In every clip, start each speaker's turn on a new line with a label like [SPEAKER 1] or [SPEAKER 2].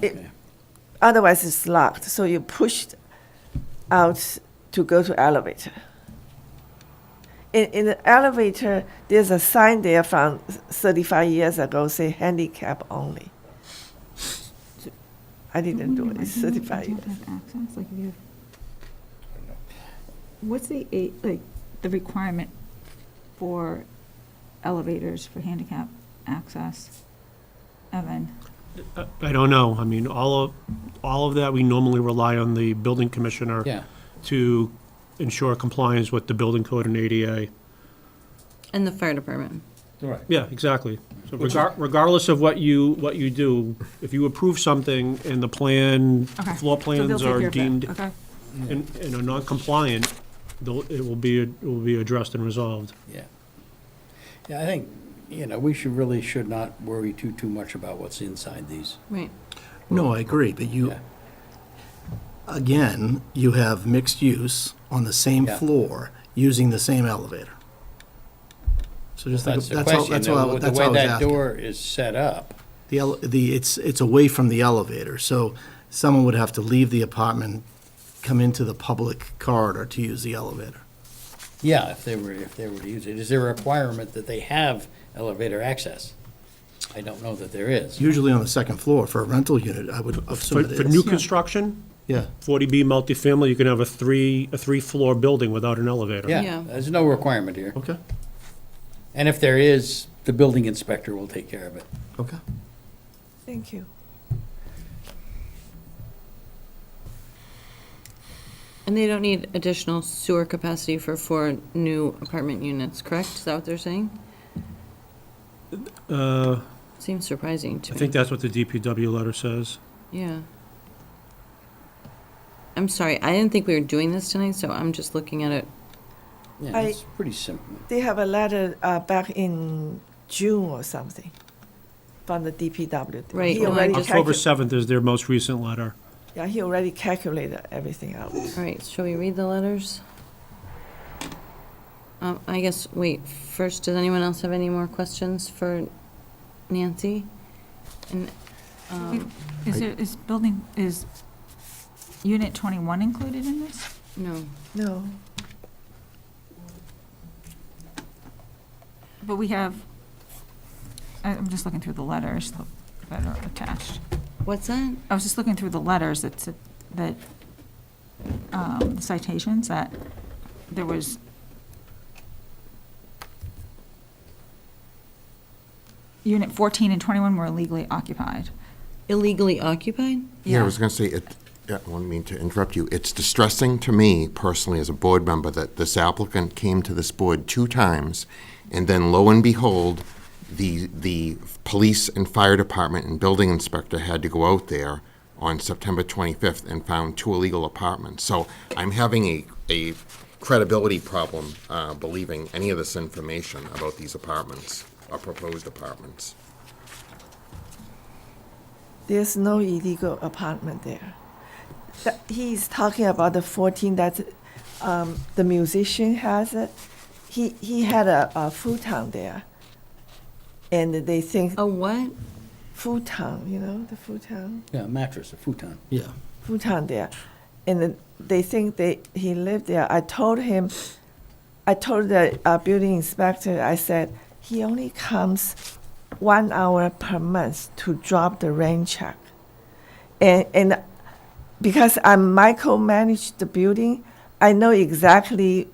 [SPEAKER 1] It- Otherwise, it's locked, so you pushed out to go to elevator. In, in the elevator, there's a sign there from thirty-five years ago, say handicap only. I didn't do it, it's thirty-five years.
[SPEAKER 2] Access, like if you have. What's the, a- like, the requirement for elevators for handicap access? Evan,
[SPEAKER 3] I- I don't know. I mean, all of, all of that, we normally rely on the building commissioner
[SPEAKER 4] Yeah.
[SPEAKER 3] to ensure compliance with the building code and ADA.
[SPEAKER 5] And the fire department.
[SPEAKER 4] Right.
[SPEAKER 3] Yeah, exactly. So regar- regardless of what you, what you do, if you approve something and the plan,
[SPEAKER 2] Okay.
[SPEAKER 3] floor
[SPEAKER 2] So they'll
[SPEAKER 3] plans
[SPEAKER 2] take care
[SPEAKER 3] are
[SPEAKER 2] of that.
[SPEAKER 3] deemed
[SPEAKER 2] Okay.
[SPEAKER 3] and and are non-compliant, they'll- it will be, it will be addressed and resolved.
[SPEAKER 4] Yeah. Yeah, I think, you know, we should, really should not worry too, too much about what's inside these.
[SPEAKER 5] Right.
[SPEAKER 6] No, I agree, but you,
[SPEAKER 4] Yeah.
[SPEAKER 6] again, you have mixed use on the same
[SPEAKER 4] Yeah.
[SPEAKER 6] floor, using the same elevator. So just think,
[SPEAKER 4] That's
[SPEAKER 6] of-
[SPEAKER 4] the
[SPEAKER 6] that's all,
[SPEAKER 4] question,
[SPEAKER 6] that's all, I
[SPEAKER 4] though,
[SPEAKER 6] wa-
[SPEAKER 4] the
[SPEAKER 6] that's all I
[SPEAKER 4] way
[SPEAKER 6] was
[SPEAKER 4] that
[SPEAKER 6] asking.
[SPEAKER 4] door is set up.
[SPEAKER 6] The, ele- the, it's, it's away from the elevator, so someone would have to leave the apartment, come into the public corridor to use the elevator.
[SPEAKER 4] Yeah, if they were, if they were to use it, is there a requirement that they have elevator access? I don't know that there is.
[SPEAKER 6] Usually on the second floor for a rental unit, I would
[SPEAKER 3] For
[SPEAKER 6] assume it
[SPEAKER 3] for new
[SPEAKER 6] is.
[SPEAKER 3] construction,
[SPEAKER 6] Yeah,
[SPEAKER 3] 40B multifamily, you can have a three, a three-floor building without an elevator.
[SPEAKER 4] Yeah,
[SPEAKER 5] Yeah.
[SPEAKER 4] there's no requirement here.
[SPEAKER 6] okay,
[SPEAKER 4] And if there is, the building inspector will take care of it.
[SPEAKER 6] okay.
[SPEAKER 1] Thank you.
[SPEAKER 5] And they don't need additional sewer capacity for four new apartment units, correct? Is that what they're saying?
[SPEAKER 3] Uh,
[SPEAKER 5] Seems surprising to
[SPEAKER 3] I
[SPEAKER 5] me.
[SPEAKER 3] think that's what the DPW letter says.
[SPEAKER 5] Yeah. I'm sorry, I didn't think we were doing this tonight, so I'm just looking at it.
[SPEAKER 4] Yeah,
[SPEAKER 1] I-
[SPEAKER 4] it's pretty simple.
[SPEAKER 1] They have a letter uh, back in June or something from the DPW.
[SPEAKER 5] Right,
[SPEAKER 1] He
[SPEAKER 5] well, I
[SPEAKER 1] already
[SPEAKER 5] just-
[SPEAKER 3] October
[SPEAKER 1] calcu-
[SPEAKER 3] 7th is their most recent letter.
[SPEAKER 1] Yeah, he already calculated everything out.
[SPEAKER 5] All right, shall we read the letters? Um, I guess, wait, first, does anyone else have any more questions for Nancy? And, um,
[SPEAKER 2] is there, is building, is unit twenty-one included in this?
[SPEAKER 5] no,
[SPEAKER 1] No,
[SPEAKER 2] But we have, I- I'm just looking through the letters that are attached.
[SPEAKER 5] what's that?
[SPEAKER 2] I was just looking through the letters that, said- that, um, citations, that there was. Unit 14 and 21 were illegally occupied.
[SPEAKER 5] Illegally occupied?
[SPEAKER 7] Yeah, I was going to say, it, yeah, I don't mean to interrupt you. It's distressing to me personally as a board member that this applicant came to this board two times, and then lo and behold, the, the police and fire department and building inspector had to go out there on September 25th and found two illegal apartments. So I'm having a, a credibility problem uh, believing any of this information about these apartments, or proposed apartments.
[SPEAKER 1] there's no illegal apartment there. That- He's talking about the 14 that um, the musician has it. He, he had a, a futon there. And they think
[SPEAKER 5] A what?
[SPEAKER 1] futon, you know, the futon,
[SPEAKER 4] Yeah, mattress, a futon.
[SPEAKER 6] Yeah.
[SPEAKER 1] futon there. And then they think they, he lived there. I told him, I told the uh, building inspector, I said, he only comes one hour per month to drop the rain check. And, and because I micromanaged the building, I know exactly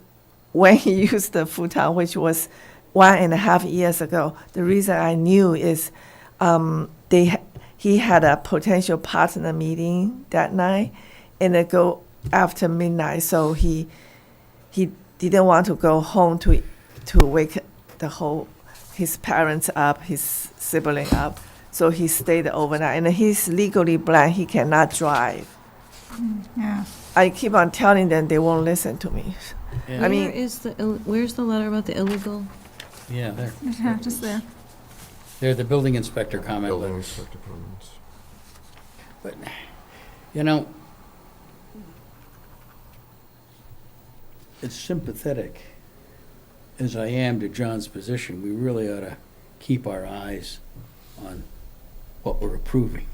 [SPEAKER 1] when he used the futon, which was one and a half years ago. The reason I knew is um, they ha- he had a potential partner meeting that night, and it go after midnight, so he he didn't want to go home to to wake the whole his parents up, his sibling up. So he stayed overnight, and he's legally blind. He cannot drive.
[SPEAKER 2] Yeah.
[SPEAKER 1] I keep on telling them they won't listen to me. I
[SPEAKER 5] Where
[SPEAKER 1] mean,
[SPEAKER 5] is the, ill- where's the letter about the illegal?
[SPEAKER 4] Yeah, there.
[SPEAKER 2] Just there.
[SPEAKER 4] They're the building inspector comment
[SPEAKER 7] Building
[SPEAKER 4] letters.
[SPEAKER 7] inspector comments.
[SPEAKER 4] But, you know, as sympathetic as I am to John's position, we really ought to keep our eyes on what we're approving.